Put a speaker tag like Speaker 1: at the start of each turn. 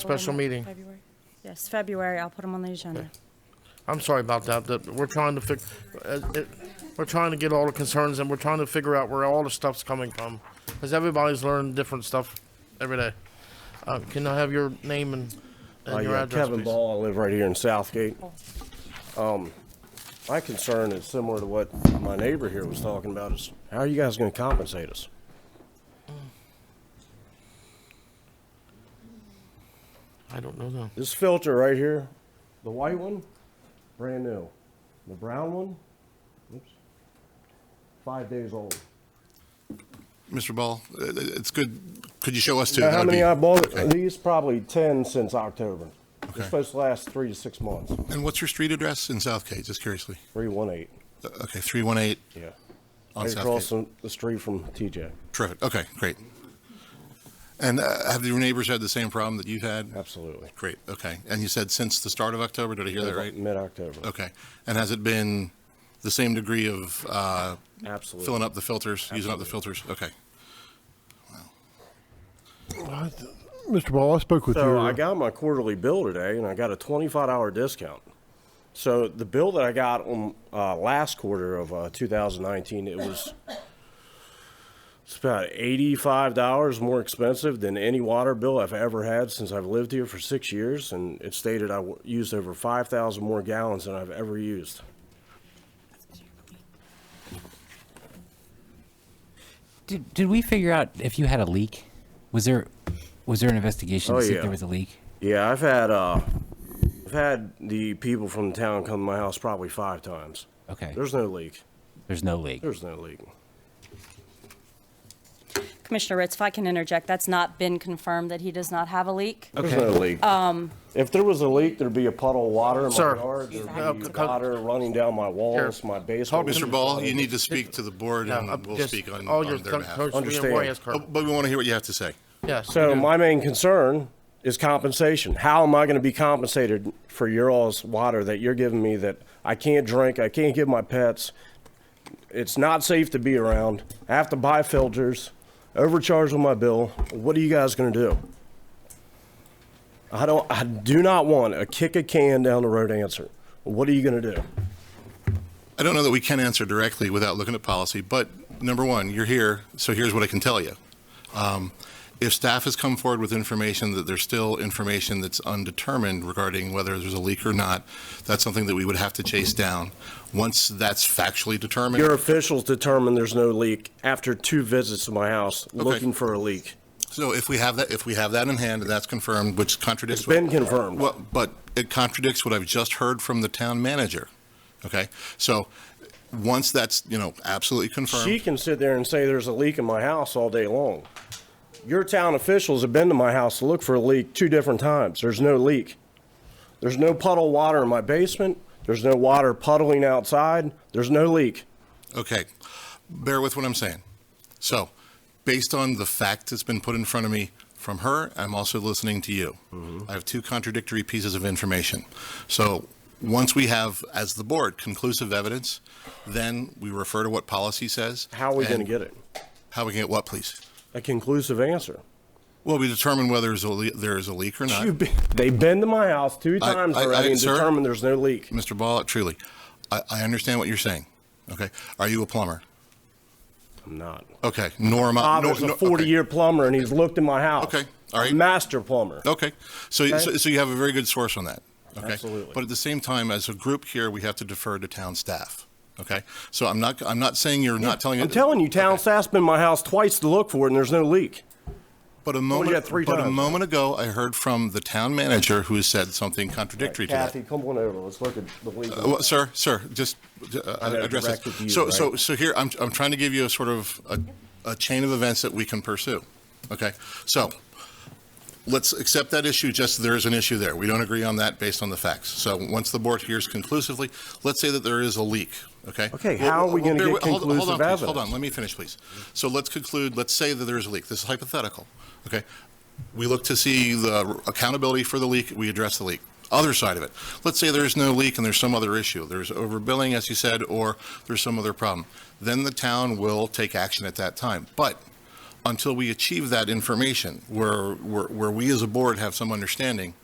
Speaker 1: Special meeting.
Speaker 2: February? Yes, February, I'll put them on the agenda.
Speaker 1: I'm sorry about that, that we're trying to fix, uh, we're trying to get all the concerns and we're trying to figure out where all the stuff's coming from. Because everybody's learning different stuff every day. Uh, can I have your name and,
Speaker 3: Uh,
Speaker 1: and your
Speaker 3: yeah,
Speaker 1: address,
Speaker 3: Kevin
Speaker 1: please?
Speaker 3: Ball, I live right here in Southgate. Um, my concern is similar to what my neighbor here was talking about is, how are you guys gonna compensate us?
Speaker 1: I don't know though.
Speaker 3: This filter right here, the white one, brand new. The brown one, oops, five days old.
Speaker 4: Mr. Ball, uh, it's good, could you show us too?
Speaker 3: Now,
Speaker 4: That
Speaker 3: how
Speaker 4: would
Speaker 3: many
Speaker 4: be-
Speaker 3: I bought,
Speaker 4: okay.
Speaker 3: these probably ten since October.
Speaker 4: Okay.
Speaker 3: It's supposed to last three to six months,
Speaker 4: And what's your street address in Southgate, just curiously?
Speaker 3: three, one, eight,
Speaker 4: Uh, Okay, 318
Speaker 3: yeah.
Speaker 4: on
Speaker 3: Right across
Speaker 4: Southgate.
Speaker 3: the the street from TJ,
Speaker 4: Terrific, okay, great. And uh, have your neighbors had the same problem that you've had?
Speaker 3: absolutely.
Speaker 4: Great, okay. And you said since the start of October, did I hear that right?
Speaker 3: Mid-October.
Speaker 4: Okay. And has it been the same degree of uh,
Speaker 3: Absolutely.
Speaker 4: filling up the filters, using up the filters? Okay.
Speaker 5: Mr. Ball, I spoke with
Speaker 3: So
Speaker 5: your.
Speaker 3: I got my quarterly bill today, and I got a twenty-five dollar discount. So the bill that I got on uh, last quarter of uh, 2019, it was it's about eighty-five dollars more expensive than any water bill I've ever had since I've lived here for six years, and it stated I w- used over five thousand more gallons than I've ever used.
Speaker 6: Did, did we figure out if you had a leak? Was there was there an investigation
Speaker 3: Oh,
Speaker 6: to see
Speaker 3: yeah.
Speaker 6: if there was a leak?
Speaker 3: Yeah, I've had uh, I've had the people from the town come to my house probably five times.
Speaker 6: Okay. There's,
Speaker 3: There's no leak.
Speaker 6: no leak.
Speaker 3: There's no leak.
Speaker 2: Commissioner Ritz, if I can interject, that's not been confirmed that he does not have a leak.
Speaker 3: There's no leak. If there was a leak, there'd be a puddle of water in my
Speaker 1: Sir.
Speaker 3: yard. There'd
Speaker 1: Exactly.
Speaker 3: be water running down my walls, my basement.
Speaker 4: Mr. Ball, you need to speak to the board
Speaker 1: Yeah, uh,
Speaker 4: and we'll
Speaker 1: just
Speaker 4: speak on
Speaker 1: all
Speaker 4: on
Speaker 1: your
Speaker 4: their
Speaker 1: th-
Speaker 4: behalf.
Speaker 1: coach, we didn't
Speaker 3: Understand.
Speaker 1: worry, yes,
Speaker 4: Oh,
Speaker 1: Kurt.
Speaker 4: But we want to hear what you have to say.
Speaker 1: Yes, we
Speaker 3: So
Speaker 1: do.
Speaker 3: my main concern is compensation. How am I going to be compensated for your all's water that you're giving me that I can't drink? I can't give my pets. It's not safe to be around. I have to buy filters, overcharge on my bill. What are you guys going to do? I don't. I do not want a kick a can down the road answer. What are you going to do?
Speaker 4: I don't know that we can answer directly without looking at policy, but number one, you're here, so here's what I can tell you. Um, If staff has come forward with information that there's still information that's undetermined regarding whether there's a leak or not, that's something that we would have to chase down. Once that's factually determined.
Speaker 3: Your officials determined there's no leak after two visits to my house looking for a leak.
Speaker 4: So if we have that, if we have that in hand and that's confirmed, which contradicts.
Speaker 3: It's been
Speaker 4: what-
Speaker 3: confirmed.
Speaker 4: Well, but it contradicts what I've just heard from the town manager. Okay? So once that's, you know, absolutely confirmed.
Speaker 3: She can sit there and say there's a leak in my house all day long. Your town officials have been to my house to look for a leak two different times. There's no leak. There's no puddle of water in my basement. There's no water puddling outside. There's no leak.
Speaker 4: Okay, bear with what I'm saying. So, based on the fact that's been put in front of me from her, I'm also listening to you.
Speaker 3: Mm-hmm.
Speaker 4: I have two contradictory pieces of information. So, once we have, as the board, conclusive evidence, then we refer to what policy says.
Speaker 3: How are we going to
Speaker 4: and
Speaker 3: get it?
Speaker 4: How we can get what, please?
Speaker 3: A conclusive answer.
Speaker 4: Well, we determine whether there's a le- there is a leak or not.
Speaker 3: You've been- They've been to my house two
Speaker 4: I-
Speaker 3: times
Speaker 4: I- I-
Speaker 3: already and
Speaker 4: sir?
Speaker 3: determined there's no leak.
Speaker 4: Mr. Ball, truly, I, I understand what you're saying. Okay, are you a plumber?
Speaker 3: I'm not.
Speaker 4: Okay, Norma.
Speaker 3: Bob is Uh, Ah, a 40 year plumber and he's looked in my house.
Speaker 4: Okay, all right.
Speaker 3: Master plumber.
Speaker 4: Okay, so, so so you have a very good source on that. Okay,
Speaker 3: Absolutely.
Speaker 4: But at the same time, as a group here, we have to defer to town staff. Okay, so I'm not I'm not saying you're not telling.
Speaker 3: I'm telling you, town staff's been to my house twice to look for it and there's no leak.
Speaker 4: But a
Speaker 3: you
Speaker 4: moment
Speaker 3: got three
Speaker 4: but a
Speaker 3: times.
Speaker 4: moment ago, I heard from the town manager who has said something contradictory to that.
Speaker 3: Kathy, come on over. Let's look at the leak.
Speaker 4: Uh, well, sir, sir, just uh,
Speaker 3: gotta
Speaker 4: address
Speaker 3: direct it to you,
Speaker 4: this. So, so,
Speaker 3: right?
Speaker 4: so here, I'm, I'm trying to give you a sort of a, a chain of events that we can pursue. Okay, so let's accept that issue. Just there is an issue there. We don't agree on that based on the facts. So once the board hears conclusively, let's say that there is a leak. Okay.
Speaker 3: Okay,
Speaker 4: Well,
Speaker 3: how are we
Speaker 4: well,
Speaker 3: gonna
Speaker 4: bear
Speaker 3: get
Speaker 4: with- hold- hold on,
Speaker 3: conclusive
Speaker 4: please, Hold on,
Speaker 3: evidence?
Speaker 4: let me finish, please. So let's conclude. Let's say that there is a leak. This is hypothetical. Okay. We look to see the accountability for the leak, we address the leak. Other side of it, let's say there's no leak and there's some other issue, there's overbilling, as you said, or there's some other problem, then the town will take action at that time. But until we achieve that information where, where, where we as a board have some understanding